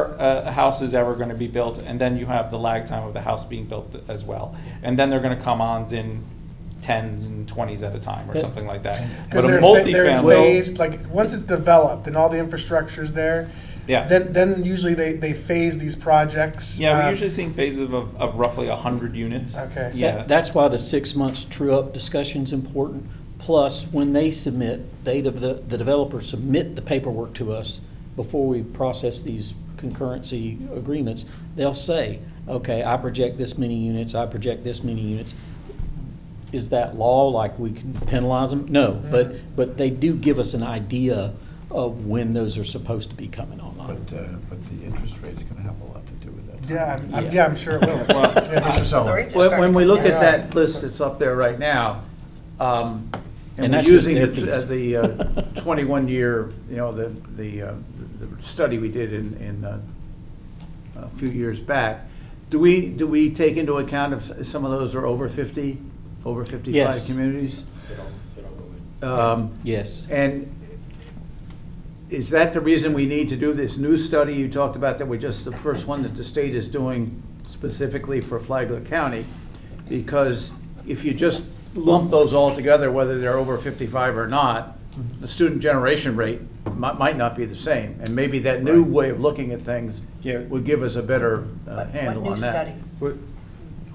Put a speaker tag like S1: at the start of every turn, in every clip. S1: before uh, a house is ever going to be built, and then you have the lag time of the house being built as well. And then they're going to come on in tens and twenties at a time or
S2: Yeah.
S1: something like that. But
S3: Because
S1: a
S3: they're, fa- they're
S1: multifamily,
S3: phased, like, once it's developed and all the infrastructure's there,
S1: yeah.
S3: then, then usually they, they phase these projects.
S1: Yeah,
S3: um,
S1: we're usually seeing phases of, of roughly a hundred units.
S3: Okay.
S1: Yeah.
S2: That's why the six months true-up discussion's important. Plus, when they submit, they, the, the developers submit the paperwork to us before we process these concurrency agreements, they'll say, okay, I project this many units, I project this many units. Is that law, like we can penalize them? No, but, but they do give us an idea of when those are supposed to be coming online.
S4: But, uh, but the interest rate's going to have a lot to do with that.
S3: Yeah, I'm, I'm-
S2: Yeah.
S3: yeah, I'm sure it will.
S1: Well,
S3: Yeah.
S4: Mr.
S5: The
S4: Sullivan.
S5: rates are
S6: When, when
S5: starting
S6: we
S5: to
S6: look
S5: come
S6: at
S5: down.
S6: that list that's up there right now, um,
S2: And
S6: and we're
S2: that's just
S6: using
S2: their
S6: the, uh,
S2: piece.
S6: the uh, twenty-one year, you know, the, the, uh, the study we did in, in, uh, a few years back, do we, do we take into account if s- some of those are over fifty, over fifty-five
S2: Yes.
S6: communities? Um,
S2: Yes.
S5: Oh,
S6: and is that the reason we need to do this new study you talked about, that we're just the first one that the state is doing specifically for Flagler County? Because if you just lump those all together, whether they're over 55 or not, the student generation rate might, might not be the same. And maybe that new way of looking at things
S7: Yeah.
S6: would give us a better uh,
S5: What-
S6: handle
S5: What
S6: on
S5: new
S6: that.
S5: study?
S7: What-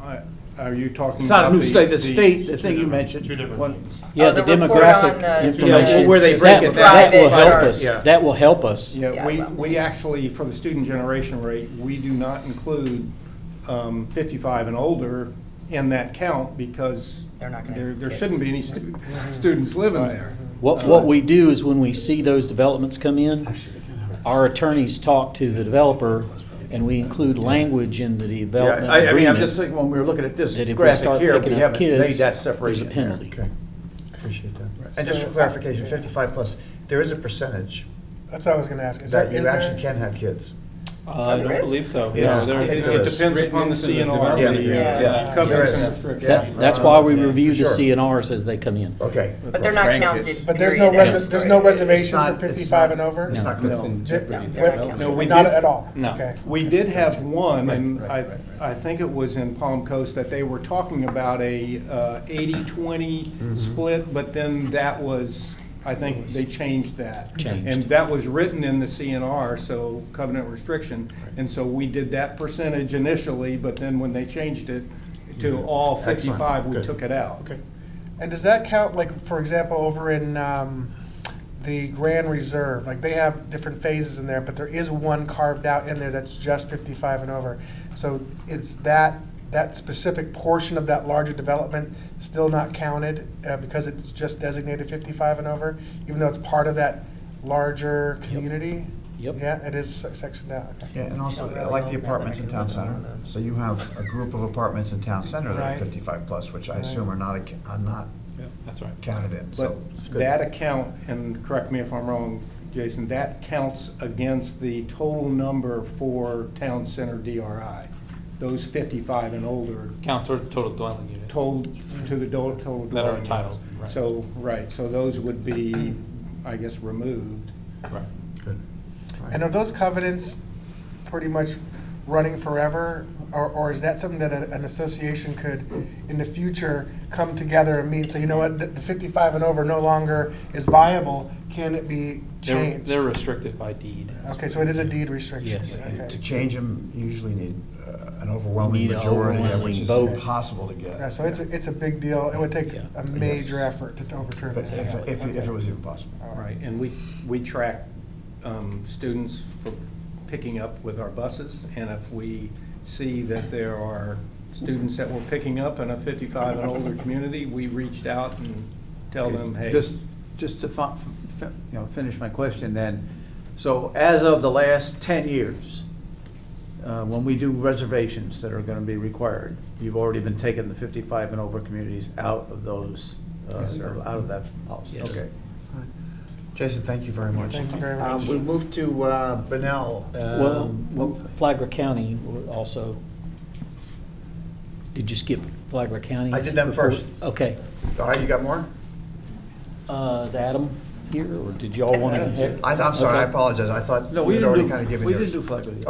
S7: I- Are you talking?
S6: It's not a
S7: about
S6: new study, the state, the
S7: two
S6: thing you
S7: different-
S6: mentioned.
S7: Two different
S6: One-
S7: things.
S2: Yeah,
S5: Oh,
S2: the
S5: the report on
S2: demographic
S5: the-
S2: information.
S6: Yeah, where they break
S2: That
S6: it
S2: that will
S5: down.
S2: help
S5: Private
S2: us.
S6: charts.
S2: That will help us.
S7: Yeah, we,
S5: well.
S7: we actually, for the student generation rate, we do not include um, 55 and older in that count because
S5: They're not gonna
S7: there
S5: have
S7: there
S5: kids.
S7: shouldn't be any stu- students living there.
S2: What, what we do is when we see those developments come in, our attorneys talk to the developer and we include language in the development
S6: Yeah, I, I mean, I'm just
S2: agreement.
S6: thinking, when we were looking at this
S2: That if we
S6: graphic
S2: start
S6: here, we
S2: picking up
S6: haven't made
S2: kids,
S6: that
S2: there's a
S6: separation. there.
S2: penalty.
S4: Okay, appreciate that. And just for
S3: So-
S4: clarification, 55 plus, there is a percentage
S3: That's what I was gonna ask. Is
S4: that
S3: is
S4: you
S3: there-
S4: actually can have kids.
S1: Uh, I
S5: there
S1: don't
S5: is?
S1: believe so.
S7: It's-
S1: No,
S4: I
S1: there-
S4: think
S7: It
S4: there
S7: it
S4: is.
S7: depends
S1: Written
S7: upon the
S1: into the
S7: CNR.
S4: development
S7: the, uh,
S5: agreement. Yeah.
S7: Covenants
S4: There
S7: and
S4: is.
S7: restrictions.
S4: Yeah.
S2: That- That's why we
S6: Uh,
S4: Yeah, for
S2: review the
S4: sure.
S2: CNRs as they come in.
S4: Okay.
S5: But they're not
S6: Grandkids.
S5: counted.
S3: But there's no,
S5: period.
S3: resi-
S5: That's
S3: there's
S5: the
S3: no
S5: story.
S3: reservation
S4: It's
S3: for
S4: not- it's
S3: fifty-five
S4: not-
S3: and over?
S4: It's not
S7: No.
S4: considered
S3: Ju-
S4: jeopardy.
S5: They're not
S3: we're-
S5: counted. No,
S7: we
S3: Not
S7: did-
S3: at all?
S1: no.
S3: Okay.
S7: We did have one, and
S6: Right,
S7: I,
S6: right, right,
S7: I think it was in Palm Coast, that they were talking about a uh, 80-20 split, but then that was, I think they changed that.
S2: Changed.
S7: And that was written in the CNR, so covenant restriction. And so we did that percentage initially, but then when they changed it to all
S4: Excellent.
S7: 55, we
S4: Good.
S7: took it out.
S3: Okay. And does that count, like, for example, over in um, the Grand Reserve, like, they have different phases in there, but there is one carved out in there that's just 55 and over. So it's that, that specific portion of that larger development still not counted uh, because it's just designated 55 and over, even though it's part of that larger community?
S2: Yep.
S3: Yeah, it is se- sectioned out. okay.
S4: Yeah, and also, I like the apartments in town center. So you have a group of apartments in town center that
S3: Right.
S4: are 55 plus, which I assume are not, ac- are not
S1: That's right.
S4: counted in, so.
S7: But
S4: it's good.
S7: that account, and correct me if I'm wrong, Jason, that counts against the total number for town center DRI. Those 55 and older
S1: Count toward total dwelling units.
S7: told to the do- total dwelling.
S1: That are
S7: units.
S1: entitled, right.
S7: So, right, so those would be, I guess, removed.
S1: Right.
S4: Good.
S3: And are those covenants pretty much running forever? Or, or is that something that a- an association could, in the future, come together and meet? So you know what, the the 55 and over no longer is viable, can it
S1: They're,
S3: be changed?
S1: they're restricted by deed.
S3: Okay, so it is a deed restriction?
S2: Yes.
S3: Okay.
S4: To change them, you usually need uh, an overwhelming
S2: Need an
S4: majority, which
S2: overwhelming
S4: is
S2: vote.
S4: impossible to
S3: Yeah,
S4: get.
S3: so it's, a- it's a big deal, it would take
S2: Yeah.
S3: a major effort to overturn
S4: But if,
S3: that.
S4: if, if it was even possible.
S7: Right, and we, we track um, students for picking up with our buses, and if we see that there are students that were picking up in a 55 and older community, we reached out and tell them, hey.
S6: Just, just to fi- fi- you know, finish my question then, so as of the last ten years, uh, when we do reservations that are gonna be required, you've already been taking the fifty-five and over communities out of those, uh,
S7: Yes, sir.
S6: out of that policy,
S2: Yes.
S6: okay.
S4: Jason, thank you very much.
S3: Thank you very much.
S4: Um, We move to uh, Benel.
S2: Well,
S4: Um,
S2: Flagler County also, did you skip Flagler County?
S4: I did them first.
S2: Okay.
S4: All right, you got more?
S2: Uh, Is Adam here or did y'all want to?
S4: I- I'm sorry, I
S2: Okay.
S4: apologize. I thought
S6: No,
S4: you
S6: we
S4: had
S6: didn't
S4: already
S6: do-
S4: kind of given
S6: We
S4: yours.
S6: didn't do Flagler.